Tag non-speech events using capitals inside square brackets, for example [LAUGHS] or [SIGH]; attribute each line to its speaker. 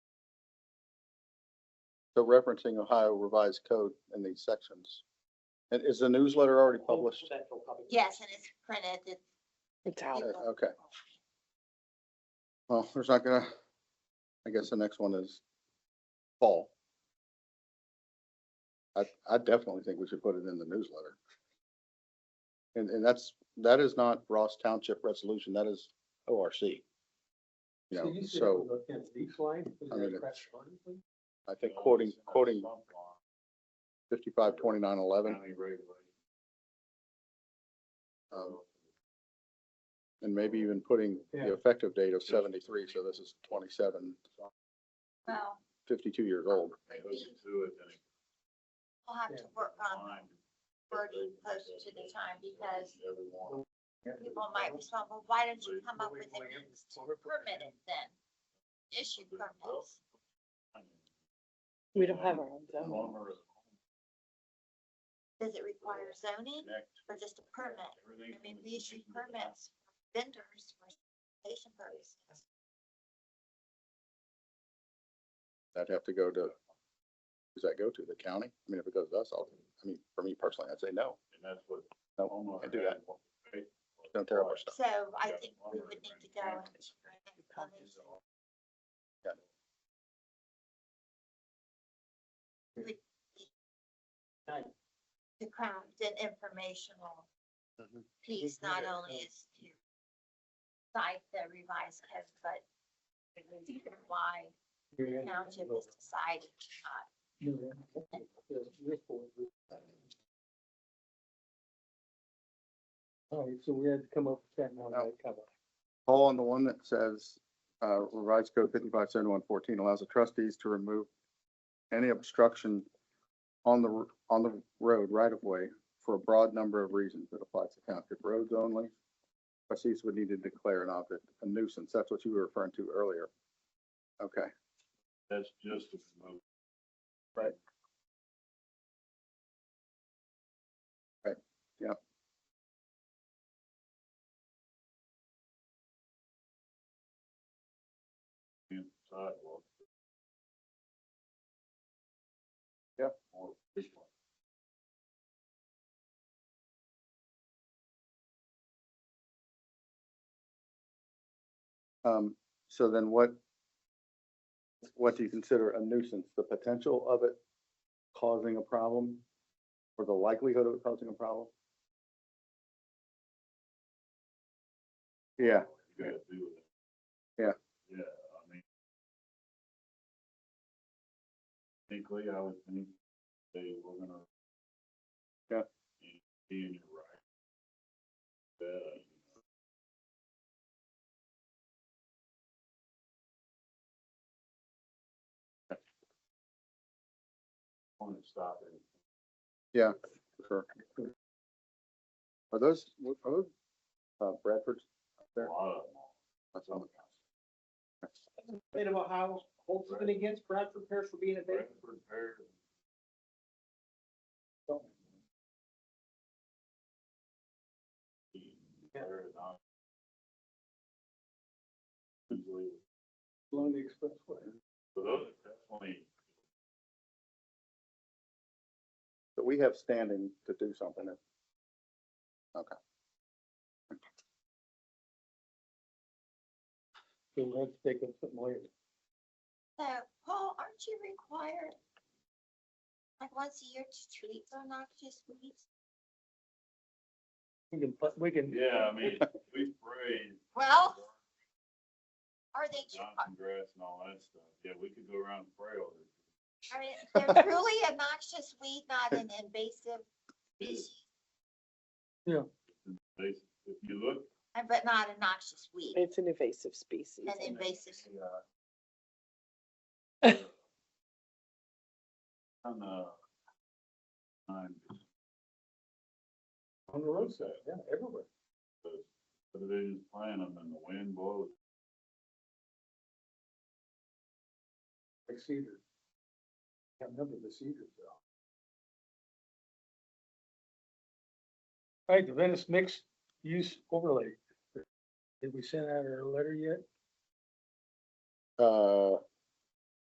Speaker 1: So referencing Ohio Revised Code in these sections. And is the newsletter already published?
Speaker 2: Yes, and it's printed. It's-
Speaker 3: It's
Speaker 2: you
Speaker 3: out.
Speaker 2: will-
Speaker 1: Uh, Okay. Well, there's not gonna, I guess the next one is fall. I, I definitely think we should put it in the newsletter. And, and that's, that is not Ross Township resolution, that is ORC. You know, so I mean, it's- I think quoting, quoting fifty-five, twenty-nine, eleven, um, and maybe even putting the
Speaker 4: Yeah.
Speaker 1: effective date of seventy-three, so this is twenty-seven,
Speaker 2: Well,
Speaker 1: fifty-two years old.
Speaker 2: we'll have to work on wording closer to the time because people might respond, well, why don't you come up with a means to permit it then? Issue permits.
Speaker 3: We don't have our own zone.
Speaker 2: Does it require zoning or just a permit? I mean, we issue permits for vendors for station purposes.
Speaker 1: I'd have to go to, does that go to the county? I mean, if it goes to us, I'll, I mean, for me personally, I'd say no.
Speaker 4: And that's what.
Speaker 1: No, can't do that. Don't tear up our stuff.
Speaker 2: So I think we would need to go and. To craft an informational
Speaker 1: Mhm.
Speaker 2: piece, not only is to cite the revised code, but the reason why the township is deciding not
Speaker 4: All right, so we had to come up with that now,
Speaker 1: Oh.
Speaker 4: right, cover.
Speaker 1: Paul on the one that says, uh, revised code fifty-five seventy-one fourteen allows the trustees to remove any obstruction on the, r- on the road right of way for a broad number of reasons that applies to township roads only. Trustees would need to declare an object a nuisance. That's what you were referring to earlier. Okay,
Speaker 5: That's just a promote. And sidewalk.
Speaker 1: Yep.
Speaker 5: Or this one.
Speaker 1: um, so then what, what do you consider a nuisance? The potential of it causing a problem? Or the likelihood of it causing a problem? Yeah,
Speaker 5: You gotta do it.
Speaker 1: Yeah.
Speaker 5: Yeah, I mean. Technically, I would think they were gonna.
Speaker 1: Yeah.
Speaker 5: Be in your right. Yeah. Want to stop it.
Speaker 1: sure. Are those, are those, uh, Bradford's?
Speaker 5: A
Speaker 1: There.
Speaker 5: lot of them. That's on the council.
Speaker 4: Bit about how Holt's been against Bradford Parish for being a big.
Speaker 5: Bradford, Perry,
Speaker 4: Yeah.
Speaker 5: Perry, and I. Usually,
Speaker 4: Along the expressway.
Speaker 5: So those are definitely,
Speaker 1: But we have standing to do something. if-
Speaker 4: So we had to take up something later.
Speaker 2: So, Paul, aren't you required, like, once a year to treat for noxious weeds?
Speaker 4: We can, put- we can.
Speaker 5: yeah, I mean, we sprayed
Speaker 2: Well, are they, tru-
Speaker 5: Johnson grass and all that stuff. Yeah, we could go around and spray all this.
Speaker 2: are they- they're truly a noxious weed, not an invasive species,
Speaker 5: They, if you look,
Speaker 2: uh, but not a noxious weed,
Speaker 3: It's an invasive species.
Speaker 2: an
Speaker 5: [LAUGHS]
Speaker 2: invasive. sp-
Speaker 5: yeah. On the. On
Speaker 4: On the roadside, yeah, everywhere.
Speaker 5: But they just plant them and the wind blows.
Speaker 4: Like cedar. Can't remember the cedars though. All right, the Venice mixed use overlay. Did we send out our letter yet?
Speaker 1: Uh,